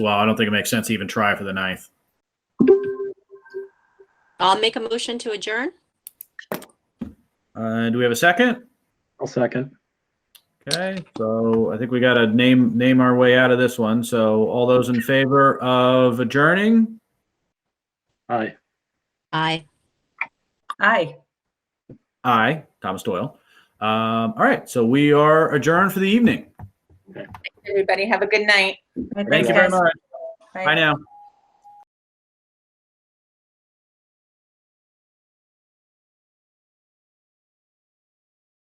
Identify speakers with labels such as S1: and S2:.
S1: Well, I don't think it makes sense to even try for the ninth.
S2: I'll make a motion to adjourn.
S1: Uh, do we have a second?
S3: I'll second.
S1: Okay, so I think we got to name name our way out of this one. So all those in favor of adjourning,
S3: Aye.
S2: Aye.
S4: Aye.
S1: aye. Thomas Doyle. Um, all right, so we are adjourned for the evening.
S4: Everybody have a good night.
S1: Thank you very much. Bye now.